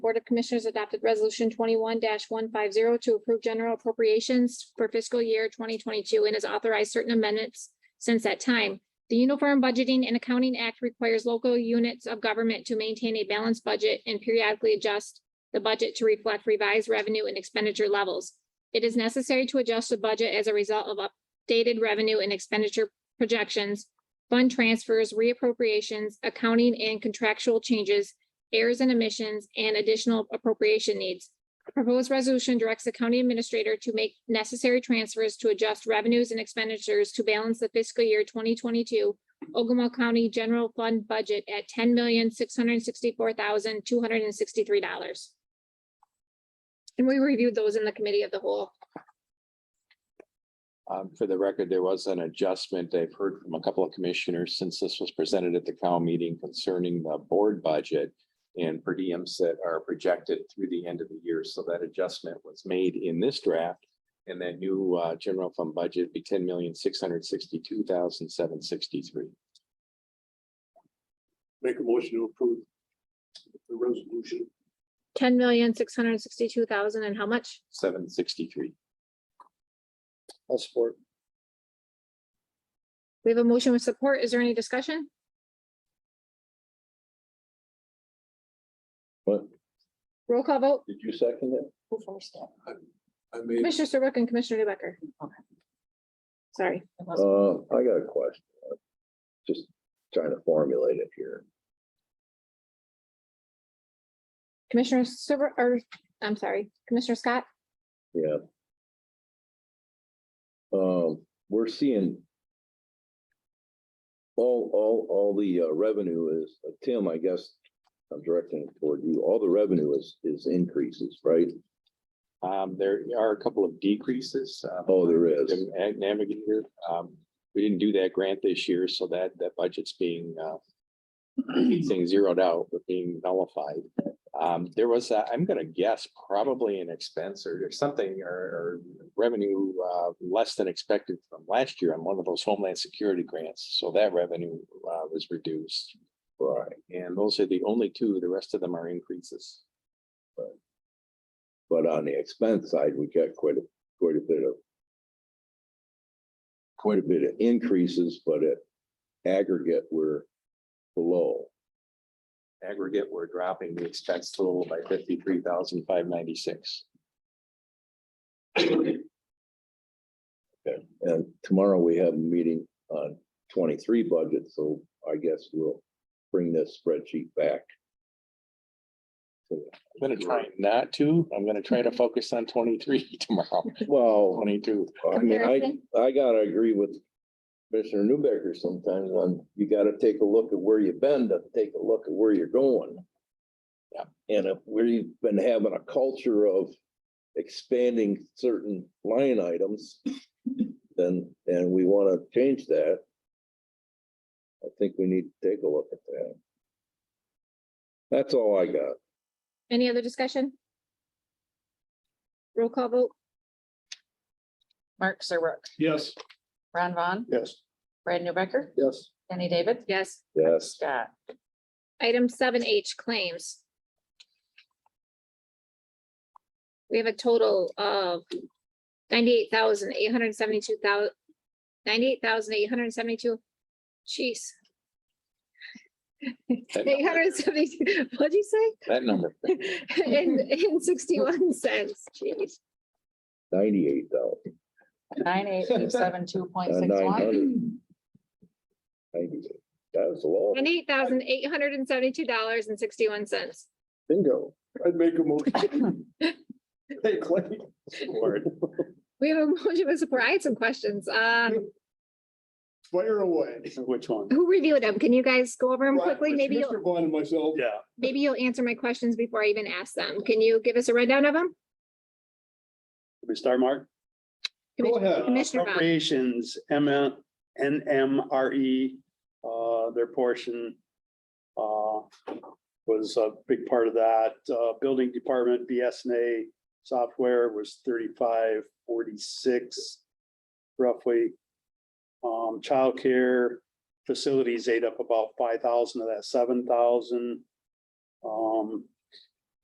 Board of Commissioners adopted Resolution twenty-one one five zero to approve general appropriations for fiscal year twenty twenty-two and has authorized certain amendments since that time. The Uniform Budgeting and Accounting Act requires local units of government to maintain a balanced budget and periodically adjust the budget to reflect revised revenue and expenditure levels. It is necessary to adjust the budget as a result of updated revenue and expenditure projections, fund transfers, reappropriations, accounting and contractual changes, errors and omissions, and additional appropriation needs. The Proposed resolution directs the county administrator to make necessary transfers to adjust revenues and expenditures to balance the fiscal year twenty twenty-two Ogama County General Fund budget at ten million, six hundred and sixty-four thousand, two hundred and sixty-three dollars. And we reviewed those in the committee of the whole. Um, for the record, there was an adjustment. I've heard from a couple of commissioners since this was presented at the Cal meeting concerning the board budget. And per diems that are projected through the end of the year. So that adjustment was made in this draft. And that new uh general fund budget be ten million, six hundred sixty-two thousand, seven sixty-three. Make a motion to approve the resolution. Ten million, six hundred and sixty-two thousand, and how much? Seven sixty-three. I'll support. We have a motion with support. Is there any discussion? What? Roll call vote. Did you second it? Who first? It I made, Commissioner Serbrook and Commissioner Newbecker. Sorry. wasn't- Uh, I got a question. I'm Just trying to formulate it here. Commissioner Serbrook, or, I'm sorry, Commissioner Scott, Yeah. Um, we're seeing all, all, all the uh, revenue is, Tim, I guess, I'm directing it toward you. All the revenue is, is increases, right? Um, there are a couple of decreases. uh, Oh, there is. Jim Ag Navigator. Um, we didn't do that grant this year, so that, that budget's being, uh, saying zeroed out, but being nullified. Um, there was, a- I'm gonna guess probably an expense or or something or, or revenue, uh, less than expected from last year on one of those Homeland Security grants. So that revenue, uh, was reduced. Right. And those are the only two, the rest of them are increases. But on the expense side, we got quite a, quite a bit of quite a bit of increases, but at aggregate, we're below. Aggregate, we're dropping the expense total by fifty-three thousand five ninety-six. And tomorrow we have a meeting on twenty-three budget, so I guess we'll bring this spreadsheet back. I'm gonna try not to. I'm gonna try to focus on twenty-three tomorrow, Well, twenty-two. I mean, Comparison? I, I gotta agree with Commissioner Newbecker sometimes on, you gotta take a look at where you've been to take a look at where you're going. Yeah. And if we've been having a culture of expanding certain line items, then, and we wanna change that. I think we need to take a look at that. That's all I got. any other discussion? Roll call vote. Mark Serbrook, yes. Ron Vaughn, Yes. Brad Newbecker, Yes. Danny David, Yes. Yes. Scott. Item seven H claims. We have a total of ninety-eight thousand eight hundred seventy-two thousand, ninety-eight thousand eight hundred seventy-two. Jeez. Eight hundred seventy-two, what'd you say? That number. In, in sixty-one cents, jeez. Ninety-eight thousand, Nine eight eight seven two point six nine one. hundred. Ninety-eight, that was a lot. Ninety-eight thousand eight hundred and seventy-two dollars and sixty-one cents. Bingo. I'd make a motion. Hey, Clay. Support. We have a motion with support. I had some questions. Uh, Fire away. Which one? who reviewed them? Can you guys go over them quickly? Maybe you'll. Mr. Vaughn and myself. Yeah. maybe you'll answer my questions before I even ask them. Can you give us a rundown of them? We start, Mark? Go ahead. Commissioner Vaughn. Uh, Appropriations, M, uh, N, M, R, E, uh, their portion. Uh, was a big part of that, uh, building department, BSNA software was thirty-five, forty-six. Roughly. Um, childcare facilities ate up about five thousand of that seven thousand. Um,